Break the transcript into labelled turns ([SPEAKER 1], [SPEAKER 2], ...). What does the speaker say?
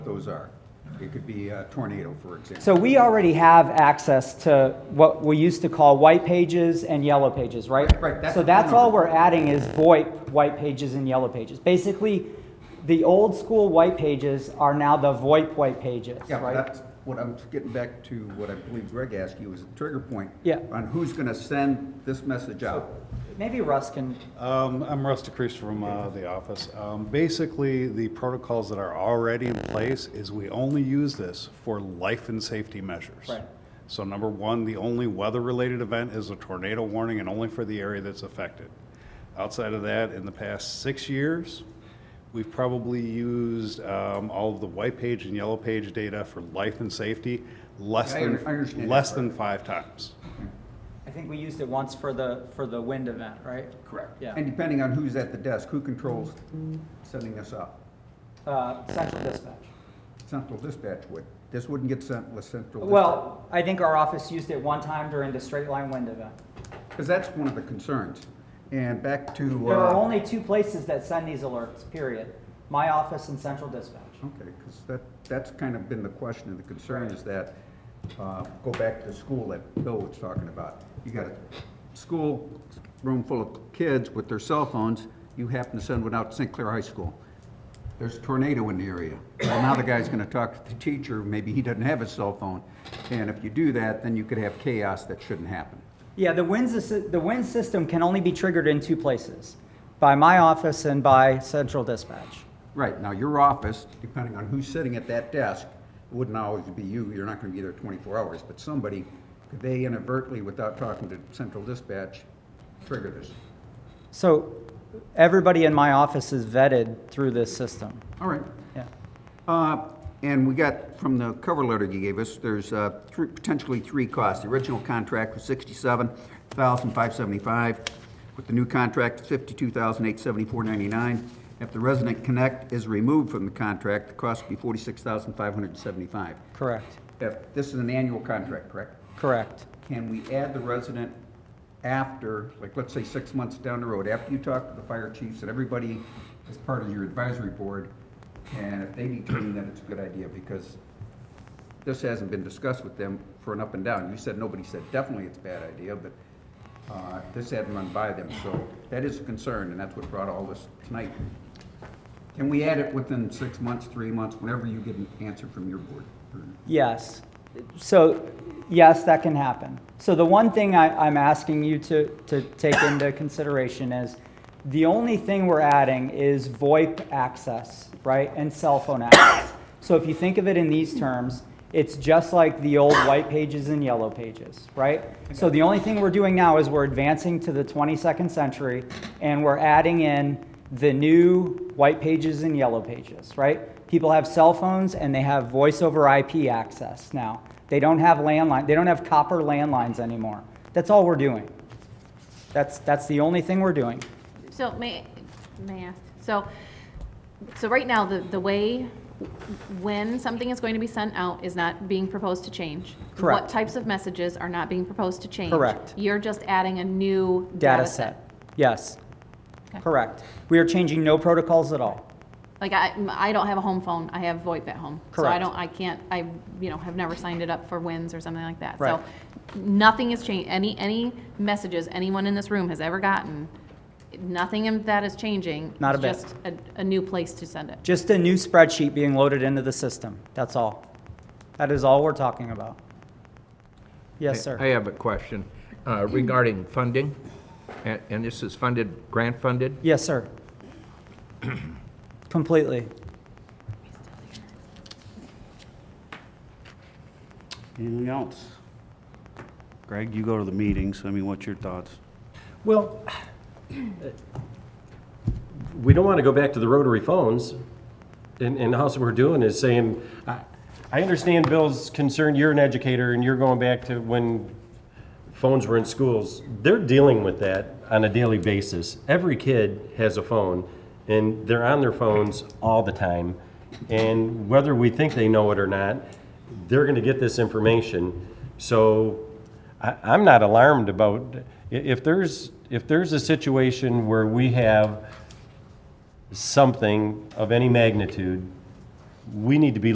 [SPEAKER 1] those are. It could be a tornado, for example.
[SPEAKER 2] So we already have access to what we used to call white pages and yellow pages, right?
[SPEAKER 1] Right, right, that's
[SPEAKER 2] So
[SPEAKER 1] the
[SPEAKER 2] that's all
[SPEAKER 1] number.
[SPEAKER 2] we're adding is VoIP, white pages and yellow pages. Basically, the old school white pages are now the VoIP white pages,
[SPEAKER 1] Yeah, but
[SPEAKER 2] right?
[SPEAKER 1] that's what I'm getting back to, what I believe Greg asked you, is a trigger point.
[SPEAKER 2] Yeah.
[SPEAKER 1] On who's gonna send this message out.
[SPEAKER 2] Maybe Russ can, uh,
[SPEAKER 3] Um, I'm Russ DeCrease from uh, the office. Um, Basically, the protocols that are already in place is we only use this for life and safety measures.
[SPEAKER 2] Right.
[SPEAKER 3] So number one, the only weather-related event is a tornado warning and only for the area that's affected. Outside of that, in the past six years, we've probably used um, all of the white page and yellow page data for life and safety less
[SPEAKER 1] I
[SPEAKER 3] than,
[SPEAKER 1] under- I understand that
[SPEAKER 3] less
[SPEAKER 1] part.
[SPEAKER 3] than five times.
[SPEAKER 2] I think we used it once for the, for the wind event, right?
[SPEAKER 1] Correct.
[SPEAKER 2] Yeah.
[SPEAKER 1] And depending on who's at the desk, who controls sending this out?
[SPEAKER 2] Uh, Central Dispatch.
[SPEAKER 1] Central dispatch would. This wouldn't get sent unless central.
[SPEAKER 2] Well, I think our office used it one time during the straight line wind event.
[SPEAKER 1] Because that's one of the concerns. And back to.
[SPEAKER 2] There
[SPEAKER 1] uh,
[SPEAKER 2] are only two places that send these alerts, period. My office and Central Dispatch.
[SPEAKER 1] Okay, because that, that's kind of been the question and the concern
[SPEAKER 2] Right.
[SPEAKER 1] is that, uh, go back to the school that Bill was talking about. You got a school room full of kids with their cell phones, you happen to send one out to St. Clair High School. There's a tornado in the area. Well, now the guy's gonna talk to the teacher, maybe he doesn't have his cell phone. And if you do that, then you could have chaos that shouldn't happen.
[SPEAKER 2] Yeah, the WINS, assi- the WINS system can only be triggered in two places, by my office and by Central Dispatch.
[SPEAKER 1] Right, now your office, depending on who's sitting at that desk, it wouldn't always be you, you're not gonna be there twenty-four hours, but somebody, could they inadvertently, without talking to central dispatch, trigger this?
[SPEAKER 2] So everybody in my office is vetted through this system.
[SPEAKER 1] All right.
[SPEAKER 2] Yeah.
[SPEAKER 1] Uh, and we got, from the cover letter you gave us, there's, uh, three, potentially three costs. The original contract was sixty-seven thousand five seventy-five, with the new contract, fifty-two thousand eight seventy-four ninety-nine. If the resident connect is removed from the contract, the cost would be forty-six thousand five hundred and seventy-five.
[SPEAKER 2] Correct,
[SPEAKER 1] If, this is an annual contract, correct?
[SPEAKER 2] correct.
[SPEAKER 1] Can we add the resident after, like, let's say, six months down the road, after you talk to the fire chiefs and everybody is part of your advisory board, and if they determine that it's a good idea, because this hasn't been discussed with them for an up and down. You said, nobody said definitely it's a bad idea, but, uh, this hadn't run by them, so that is a concern, and that's what brought all this tonight. Can we add it within six months, three months, whenever you get an answer from your board? or-
[SPEAKER 2] Yes. So, yes, that can happen. So the one thing I, I'm asking you to, to take into consideration is the only thing we're adding is VoIP access, right, and cell phone access. So if you think of it in these terms, it's just like the old white pages and yellow pages, right? So the only thing we're doing now is we're advancing to the 22nd century and we're adding in the new white pages and yellow pages, right? People have cell phones and they have voice over IP access now. They don't have landline, they don't have copper landlines anymore. That's all we're doing. That's, that's the only thing we're doing.
[SPEAKER 4] So may, may I ask, so, so right now, the, the way, when something is going to be sent out is not being proposed to change?
[SPEAKER 2] Correct.
[SPEAKER 4] What types of messages are not being proposed to change?
[SPEAKER 2] Correct.
[SPEAKER 4] You're just adding a new
[SPEAKER 2] Data set. Yes,
[SPEAKER 4] Okay.
[SPEAKER 2] correct. We are changing no protocols at all.
[SPEAKER 4] Like, I, I don't have a home phone, I have VoIP at home. So I
[SPEAKER 2] Correct.
[SPEAKER 4] don't, I can't, I, you know, have never signed it up for WINS or something like that.
[SPEAKER 2] Right.
[SPEAKER 4] So nothing has changed, any, any messages anyone in this room has ever gotten, nothing in that is changing.
[SPEAKER 2] Not a bit.
[SPEAKER 4] It's just a, a new place to send it.
[SPEAKER 2] Just a new spreadsheet being loaded into the system. That's all. That is all we're talking about. Yes,
[SPEAKER 5] I
[SPEAKER 2] sir.
[SPEAKER 5] have a question uh, regarding funding, and and this is funded, grant-funded.
[SPEAKER 2] Yes, sir. Completely.
[SPEAKER 6] Anything else? Greg, you go to the meetings, I mean, what's your thoughts?
[SPEAKER 7] Well, we don't want to go back to the rotary phones, and, and how's we're doing is saying, I, I understand Bill's concern, you're an educator, and you're going back to when phones were in schools. They're dealing with that on a daily basis. Every kid has a phone, and they're on their phones all the time. And whether we think they know it or not, they're going to get this information. So I, I'm not alarmed about i- if there's if there's a situation where we have something of any magnitude, we need to be